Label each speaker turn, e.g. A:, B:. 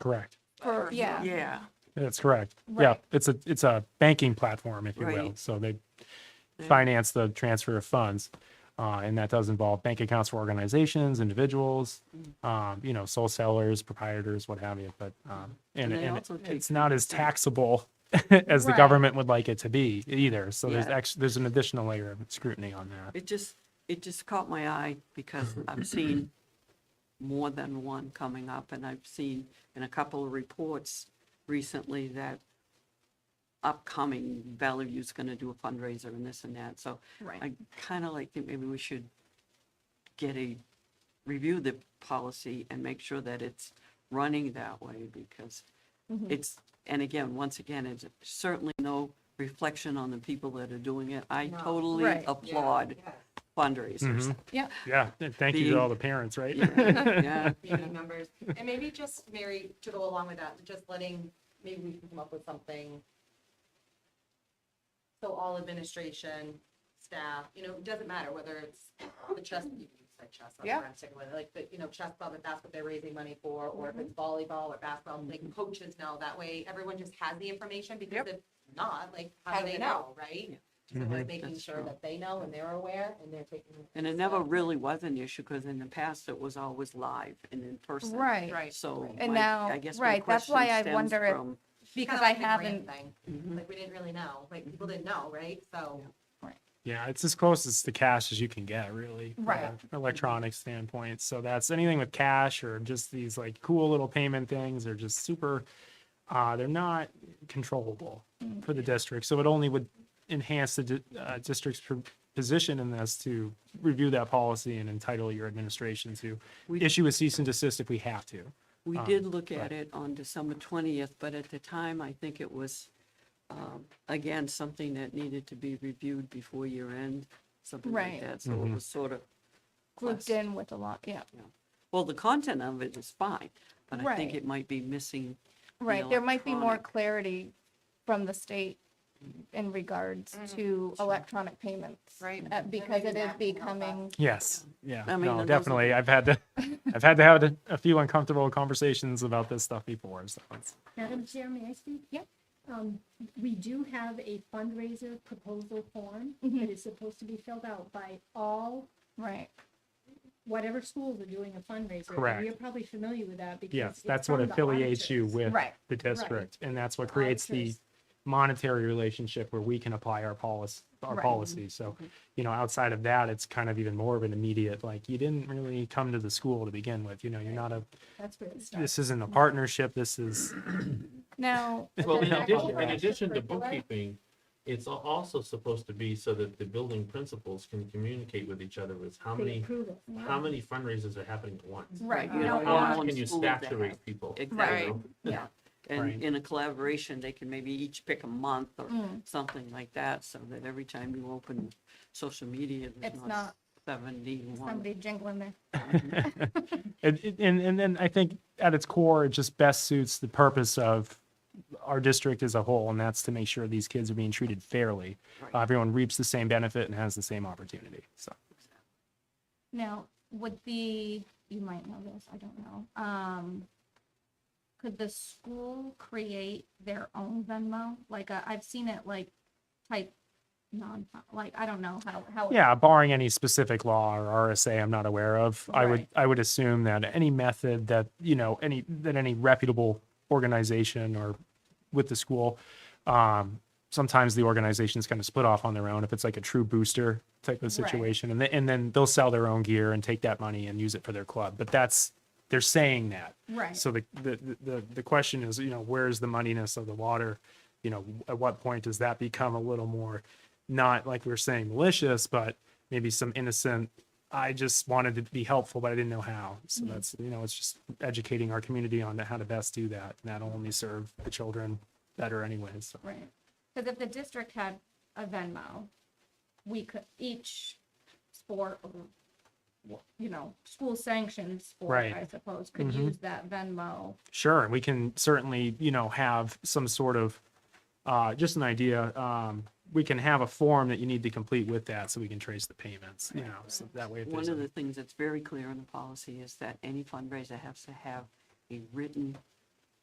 A: Correct.
B: per,
C: yeah.
B: Yeah.
A: That's correct. Yeah,
C: Right.
A: it's a, it's a banking platform, if you will.
B: Right.
A: So they
B: Yeah.
A: finance the transfer of funds. Uh, and that does involve bank accounts for organizations, individuals,
B: Mm.
A: um, you know, sole sellers, proprietors, what have you. But, um, and,
B: Mm-hmm. And they
A: and
B: also take
A: it's not as taxable as the
C: Right.
A: government would like it to be either. So there's
B: Yeah.
A: actually, there's an additional layer of scrutiny on that.
B: It just, it just caught my eye because I've seen more than one coming up and I've seen in a couple of reports recently that upcoming Bellevue's going to do a fundraiser and this and that. So
C: Right.
B: I kind of like think maybe we should get a, review the policy and make sure that it's running that way because
C: Mm-hmm.
B: it's, and again, once again, it's certainly no reflection on the people that are doing it. I totally
C: Right. Yeah.
B: applaud fundraisers.
C: Yeah.
A: Yeah. and Thank you
B: Being-
A: to all the parents, right? Mm-hmm.
B: Yeah,
D: community members. And maybe just, Mary, to go along with that, just letting, maybe we can come up with something. So all administration, staff, you know, it doesn't matter whether it's the chess, you can say chess, that's where I'm sticking with it, like, the you know, chess club, if that's what they're raising money for, or if it's volleyball or basketball, like coaches know, that way everyone just has the information, because if not, like, how do they know, right? So like making
B: That's
D: sure
B: true.
D: that they know and they're aware and they're taking.
B: Mm-hmm. and it never really was an issue because in the past it was always live and in person.
C: Right.
D: Right.
B: So.
C: And
B: my-
C: now-
B: I guess my
C: right, that's
B: question
C: why I
B: stems
C: wonder if-
B: from-
C: Because
D: Kinda
C: I
D: like the grant
C: haven't,
D: thing.
B: Mhm.
D: Like, we didn't really know, like, people didn't know, right? So,
A: Yeah, it's as close as to cash as you can get, really. from
C: Right.
A: an Electronic standpoint. So that's anything with cash or just these like cool little payment things are just super, uh, they're not controllable
B: Mm.
A: for the district. So it only would enhance the di- uh, district's pr- position in this to review that policy and entitle your administration to
B: We-
A: issue a cease and desist if we have to.
B: We
E: Ah,
A: Um,
B: did look at
A: right.
B: it on December 20th, but at the time, I think it was, um, again, something that needed to be reviewed before year end, something like
C: Right.
B: that. So
E: Mm-hmm.
B: it was sort of,
C: grouped in with a lot, yeah.
B: well, the content of it is fine, but I think
C: Right.
B: it might be missing. the
C: Right, there might be more
B: electronic-
C: clarity from the state in regards to electronic payments.
D: Mm-hmm. Right.
C: uh, Because
D: maybe
C: it
D: that
C: is
D: can help
C: becoming,
A: Yes, yeah,
B: I mean, and
A: no,
B: those are
A: definitely.
B: the-
A: I've had to, I've had to have a- a few uncomfortable conversations about this stuff before, so it's.
F: Madam Chair, may I speak?
C: Yep.
F: Um, we do have a fundraiser proposal form
A: Mm-hmm.
F: that is supposed to be filled out by all,
C: right,
F: whatever schools are doing a fundraiser. and
A: Correct.
F: You're probably familiar with that because.
A: Yes,
F: it's
A: that's what
F: from the
A: affiliates you
F: auditors.
A: with
C: Right.
A: the district, and that's what creates the
F: Auditors.
A: monetary relationship where we can apply our policy, our
C: Right.
A: policy. So, you know, outside of that, it's kind of even more of an immediate, like, you didn't really come to the school to begin with, you know, you're not a,
F: That's where it starts.
A: this isn't a partnership, this is,
C: now,
E: Well,
F: then
E: in
F: that
E: addition, in
F: overrides the
E: addition to
F: curricular.
E: bookkeeping, it's al- also supposed to be so that the building principals can communicate with each other with how
F: They
E: many,
F: approve it.
E: how many fundraisers are happening at once.
C: right,
B: You
C: you
B: don't
C: don't
E: How
B: want-
C: want,
E: much can you
B: School that-
E: saturate people? you
B: Exactly.
E: know?
C: yeah,
A: Right.
B: And in a collaboration, they can maybe each pick a month or
C: Mm.
B: something like that, so that every time you open social media, there's
C: It's
B: not
C: not
B: 71.
C: somebody jingling there.
A: and, and, and then I think at its core, it just best suits the purpose of our district as a whole, and that's to make sure these kids are being treated fairly.
B: Right.
A: Everyone reaps the same benefit and has the same opportunity, so.
C: Now, would the, you might know this, I don't know, um, could the school create their own Venmo? Like, uh, I've seen it like type non, like, I don't know how, how. it-
A: Yeah, barring any specific law or RSA I'm not aware of, I would, I would assume that any method that, you know, any, that any reputable organization or with the school, um, sometimes the organization's kind of split off on their own if it's like a true booster type of
C: Right.
A: situation. And then, and then they'll sell their own gear and take that money and use it for their club. But that's, they're saying that.
C: Right.
A: So the, the, the, the question is, you know, where's the moneyness of the water? You know, at what point does that become a little more, not like we were saying malicious, but maybe some innocent, I just wanted to be helpful, but I didn't know how. So that's, you know, it's just educating our community on how to best do that. And that'll only serve the children better anyways. So,
C: Right. Because if the district had a Venmo, we could, each sport or, you know, school sanctioned sport,
A: Right.
C: I suppose, could
A: Mhm.
C: use that Venmo.
A: Sure, and we can certainly, you know, have some sort of, uh, just an idea. Um, we can have a form that you need to complete with that so we can trace the payments, you know, so that way. if there's
B: One
A: a-
B: of the things that's very clear in the policy is that any fundraiser has to have a written